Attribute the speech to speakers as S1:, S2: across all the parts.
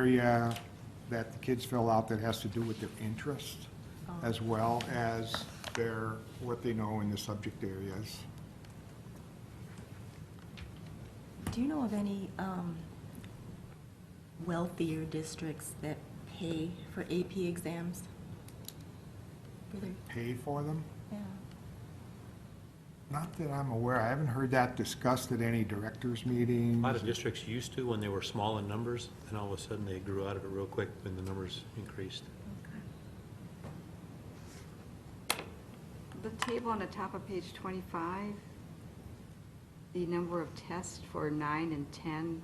S1: area that the kids fill out that has to do with their interest, as well as their, what they know in the subject areas.
S2: Do you know of any um, wealthier districts that pay for AP exams? For their-
S1: Pay for them?
S2: yeah.
S1: Not that I'm aware, I haven't heard that discussed at any directors' meetings.
S3: A lot of districts used to when they were small in numbers, and all of a sudden they grew out of it real quick when the numbers increased.
S4: The table on the top of page 25, the number of tests for nine and 10,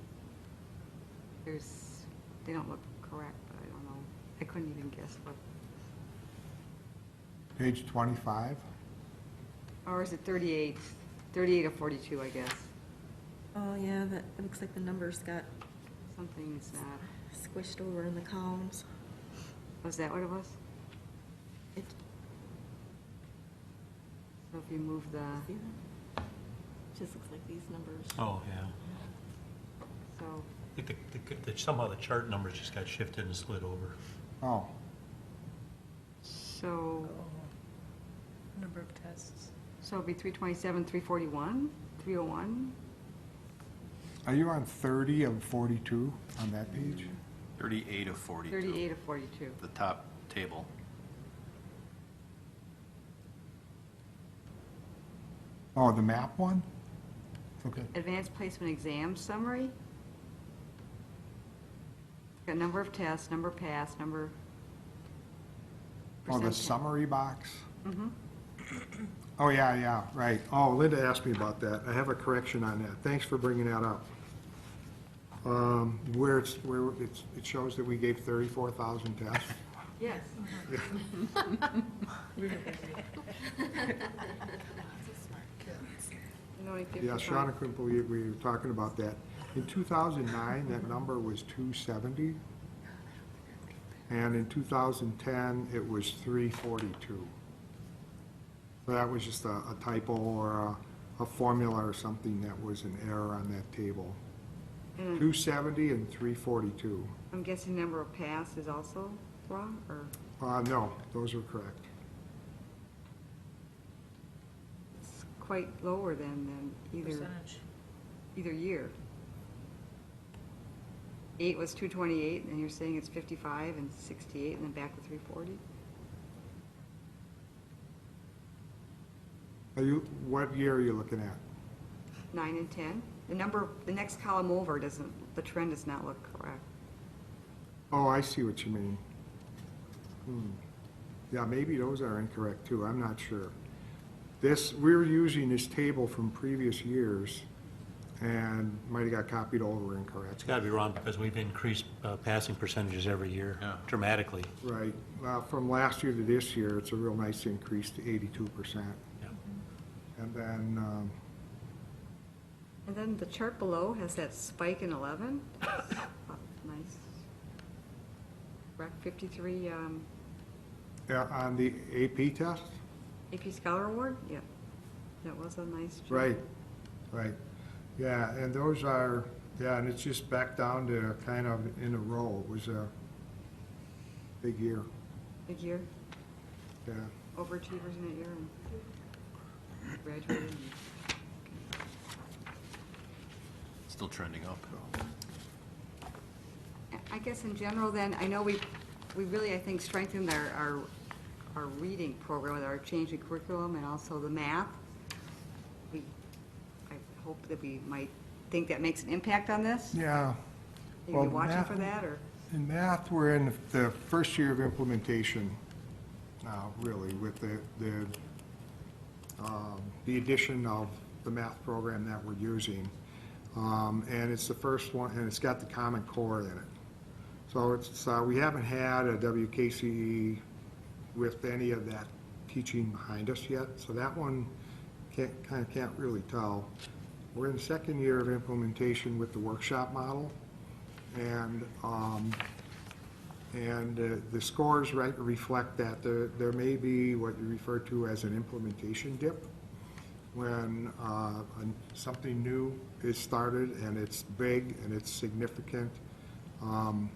S4: there's, they don't look correct, but I don't know. I couldn't even guess what,
S1: Page 25,
S4: or is it 38? 38 or 42, I guess.
S2: Oh, yeah, that, it looks like the numbers got
S4: Something's not,
S2: squished over in the columns.
S4: was that what it was?
S2: It-
S4: So if you move the,
S2: see that? Just looks like these numbers.
S3: Oh, yeah.
S4: so,
S3: I think the- the- the- somehow the chart numbers just got shifted and slid over.
S1: oh,
S4: so,
S5: Number of tests.
S4: so it'd be 327, 341, 301?
S1: are you on 30 of 42 on that page?
S6: 38 of 42.
S4: 38 or 42?
S6: The top table.
S1: Oh, the map one? Okay.
S4: Advanced placement exam summary. Got number of tests, number passed, number.
S1: Oh, the
S4: percent-
S1: summary box? Oh, yeah, yeah, right. Oh, Linda asked me about that. I have a correction on that. Thanks for bringing that up. Um, Where it's, where it's, it shows that we gave 34,000 tests.
S4: Yes. No, like
S1: Yeah,
S4: 55.
S1: Shauna couldn't believe we were talking about that. In 2009, that number was 270. And in 2010, it was 342. So that was just a a typo or a- a formula or something that was an error on that table.
S4: Hmm.
S1: 270 and 342.
S4: Mm, I'm guessing number of pass is also wrong, or,
S1: Uh, no, those are correct.
S4: it's quite lower than, than either,
S5: Percentage.
S4: either year. Eight was two twenty-eight, and you're saying it's fifty-five and sixty-eight, and then back to three forty?
S1: Are you, what year are you looking at?
S4: Nine and 10. The number, the next column over doesn't, the trend does not look correct.
S1: Oh, I see what you mean. Hmm. Yeah, maybe those are incorrect too, I'm not sure. This, we were using this table from previous years and might have got copied over
S3: It's
S1: incorrect.
S3: got to be wrong because we've increased uh, passing percentages every year
S6: Yeah.
S3: dramatically.
S1: Right, well, from last year to this year, it's a real nice increase to eighty-two percent.
S3: Yeah.
S1: And then, um,
S4: And then the chart below has that spike in 11. Oh, Nice. Rec 53 um,
S1: yeah, on the AP test,
S4: AP Scholar Award, yeah. That was a nice. jump.
S1: right, right. Yeah, and those are, yeah, and it's just back down to kind of in a row, it was a big year,
S4: Big year,
S1: yeah.
S4: overachievers in that year and graduated. and-
S6: Still trending up.
S4: I guess in general then, I know we, we really, I think, strengthened our, our, our reading program with our change in curriculum and also the math. We, I hope that we might think that makes an impact on this.
S1: Yeah.
S4: You
S1: Well,
S4: be watching
S1: math-
S4: for that, or?
S1: In math, we're in the first year of implementation now, really, with the, the, um, the addition of the math program that we're using. Um, and it's the first one, and it's got the Common Core in it. So it's, uh, we haven't had a WKCE E with any of that teaching behind us yet, so that one can't, kind of can't really tell. We're in the second year of implementation with the workshop model, and, um, and uh, the scores right reflect that. There, there may be what you refer to as an implementation dip, when uh, an- something new is started and it's big and it's significant. Um,